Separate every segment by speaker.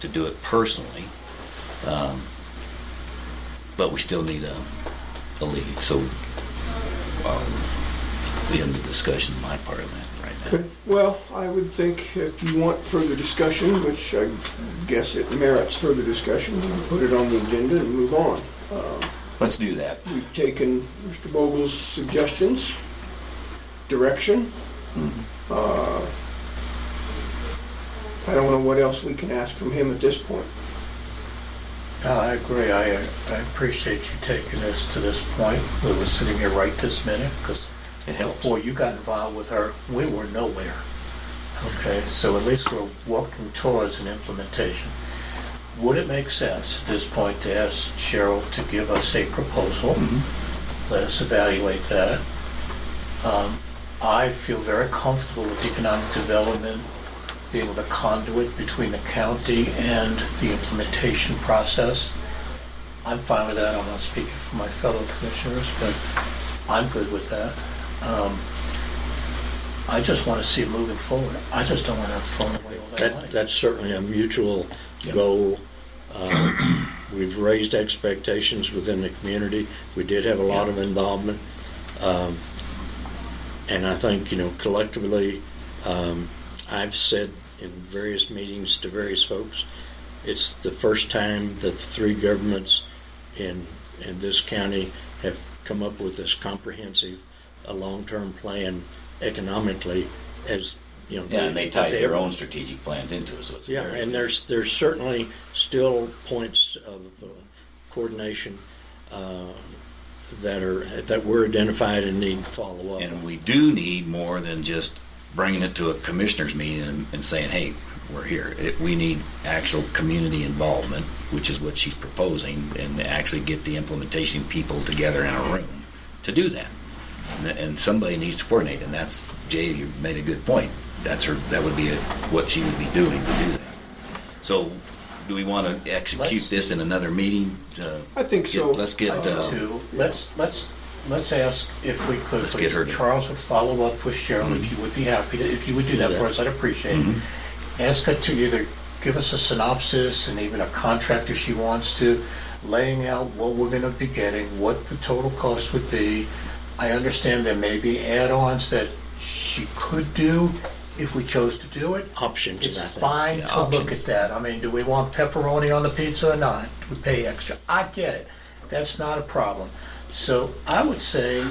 Speaker 1: to do it personally. Um, But we still need a, a lead, so um, we end the discussion, my part of that right now.
Speaker 2: Okay, Well, I would think if you want further discussion, which I guess it merits further discussion, we can put it on the agenda and move on.
Speaker 1: Let's do that.
Speaker 2: We've taken Mr. Vogel's suggestions, direction.
Speaker 1: Mm-hmm.
Speaker 2: Uh, I don't know what else we can ask from him at this point.
Speaker 3: No, I agree. I, I appreciate you taking us to this point. We were sitting here right this minute because
Speaker 1: It helps.
Speaker 3: before you got involved with her, we were nowhere. Okay, so at least we're working towards an implementation. Would it make sense at this point to ask Cheryl to give us a proposal? Let us evaluate that. Um, I feel very comfortable with economic development being the conduit between the county and the implementation process. I'm fine with that. I'm not speaking for my fellow commissioners, but I'm good with that. Um, I just want to see it moving forward. I just don't want to have thrown away all that money.
Speaker 4: That, that's certainly a mutual goal. Uh, We've raised expectations within the community. We did have a lot of involvement. Um, And I think, you know, collectively, um, I've said in various meetings to various folks, it's the first time that the three governments in, in this county have come up with this comprehensive, a long-term plan economically as, you know.
Speaker 1: Yeah, and they tie
Speaker 4: that
Speaker 1: their own strategic plans into it, so it's.
Speaker 4: yeah,
Speaker 1: very-
Speaker 4: and there's, there's certainly still points of uh, coordination uh, that are, that were identified and need follow-up.
Speaker 1: And we do need more than just bringing it to a commissioners meeting and, and saying, hey, we're here. It, we need actual community involvement, which is what she's proposing, and actually get the implementation people together in a room to do that. And, th- and somebody needs to coordinate, and that's, Jay, you made a good point. That's her, that would be a, what she would be doing to do that. So do we want to execute
Speaker 3: Let's-
Speaker 1: this in another meeting? Uh,
Speaker 2: I think
Speaker 1: get-
Speaker 2: so.
Speaker 1: Let's get, uh,
Speaker 3: to, let's, let's, let's ask if we could.
Speaker 1: Let's get her to- Mm-hmm.
Speaker 3: Charles would follow up with Cheryl, if you would be happy to, if you would do that for us, I'd appreciate it.
Speaker 1: Mm-hmm.
Speaker 3: Ask her to either give us a synopsis and even a contract if she wants to, laying out what we're gonna be getting, what the total cost would be. I understand there may be add-ons that she could do if we chose to do it.
Speaker 4: Options,
Speaker 3: It's
Speaker 4: I think.
Speaker 3: fine
Speaker 1: Yeah,
Speaker 3: to
Speaker 1: options.
Speaker 3: look at that. I mean, do we want pepperoni on the pizza or not? Do we pay extra? I get it. That's not a problem. So I would say,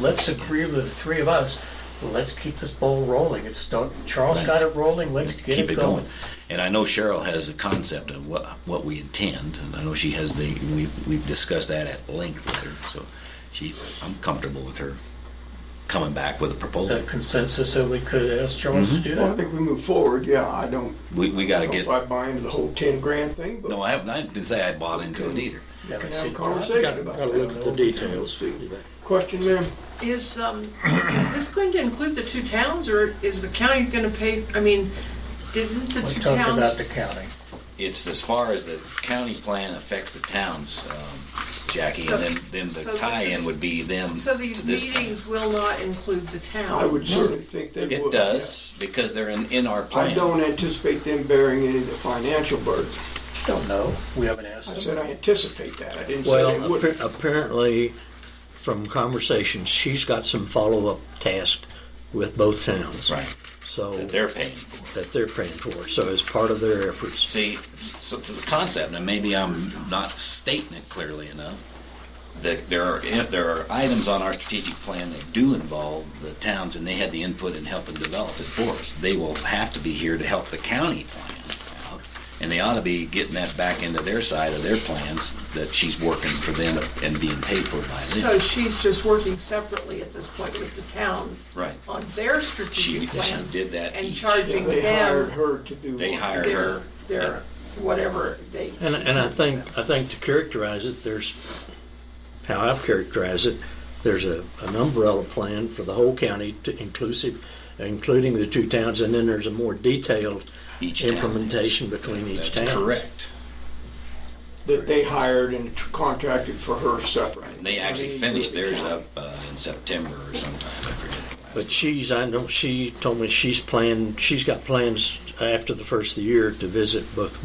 Speaker 3: let's agree with the three of us. Let's keep this ball rolling. It's, don't- Charles got it rolling, let's get
Speaker 1: keep
Speaker 3: it going.
Speaker 1: And I know Cheryl has the concept of what what we intend, and I know she has the we we've discussed that at length with her. So she, I'm comfortable with her coming back with a
Speaker 3: Is
Speaker 1: proposal.
Speaker 3: that consensus that we could ask Charles to do
Speaker 2: Well, I
Speaker 3: that?
Speaker 2: think we move forward, yeah, I don't
Speaker 1: We we got
Speaker 2: I
Speaker 1: to
Speaker 3: Oh,
Speaker 2: don't know
Speaker 1: get.
Speaker 2: if I buy into the whole 10 grand thing, but
Speaker 1: No, I haven't. I didn't say I bought into it either.
Speaker 3: Yeah,
Speaker 2: we can
Speaker 3: let's
Speaker 2: have a
Speaker 3: see.
Speaker 2: conversation about
Speaker 4: Gotta look at the
Speaker 2: that.
Speaker 4: details.
Speaker 2: Question, ma'am?
Speaker 5: Is, um, is this going to include the two towns, or is the county gonna pay, I mean, didn't the
Speaker 3: We're
Speaker 5: two
Speaker 3: talking about
Speaker 5: towns?
Speaker 3: the county.
Speaker 1: It's as far as the county plan affects the towns, um, Jackie,
Speaker 5: So-
Speaker 1: and then then the
Speaker 5: so this
Speaker 1: tie-in
Speaker 5: is-
Speaker 1: would be them
Speaker 5: So
Speaker 1: to
Speaker 5: these
Speaker 1: this. plan.
Speaker 5: meetings will not include the
Speaker 2: I
Speaker 5: town?
Speaker 2: would certainly think they would.
Speaker 1: It does because they're in in our
Speaker 2: yeah.
Speaker 1: plan.
Speaker 2: I don't anticipate them bearing any of the financial burden.
Speaker 3: Don't know, we haven't
Speaker 2: I
Speaker 3: asked
Speaker 2: said
Speaker 3: them.
Speaker 2: I anticipate that, I didn't say they
Speaker 4: Well, appa-
Speaker 2: would.
Speaker 4: apparently, from conversations, she's got some follow-up task with both towns.
Speaker 1: Right.
Speaker 4: So,
Speaker 1: That they're paying for.
Speaker 4: that they're praying for, so as part of their efforts.
Speaker 1: See, so to the concept, and maybe I'm not stating it clearly enough, that there are, eh, there are items on our strategic plan that do involve the towns, and they had the input in helping develop it for us. They will have to be here to help the county plan out, and they ought to be getting that back into their side of their plans that she's working for them and being paid for by
Speaker 5: So
Speaker 1: them.
Speaker 5: she's just working separately at this point with the towns?
Speaker 1: Right.
Speaker 5: On their
Speaker 1: She-
Speaker 5: strategic
Speaker 1: she
Speaker 5: plans?
Speaker 1: did that
Speaker 5: And
Speaker 1: each.
Speaker 5: charging
Speaker 2: They hired
Speaker 5: them
Speaker 2: her to do.
Speaker 1: They
Speaker 2: one.
Speaker 1: hired
Speaker 5: their,
Speaker 1: her.
Speaker 5: their, whatever they.
Speaker 4: And, and I think, I think to characterize it, there's, how I've characterized it, there's a, an umbrella plan for the whole county to inclusive, including the two towns, and then there's a more detailed
Speaker 1: Each town.
Speaker 4: implementation between each town.
Speaker 1: That's correct.
Speaker 2: That they hired and tr- contracted for her separate.
Speaker 1: And they actually
Speaker 2: I mean,
Speaker 1: finished
Speaker 2: with the
Speaker 1: theirs up
Speaker 2: county.
Speaker 1: uh, in September or sometime, I forget.
Speaker 4: But she's, I know, she told me she's planned, she's got plans after the first of the year to visit both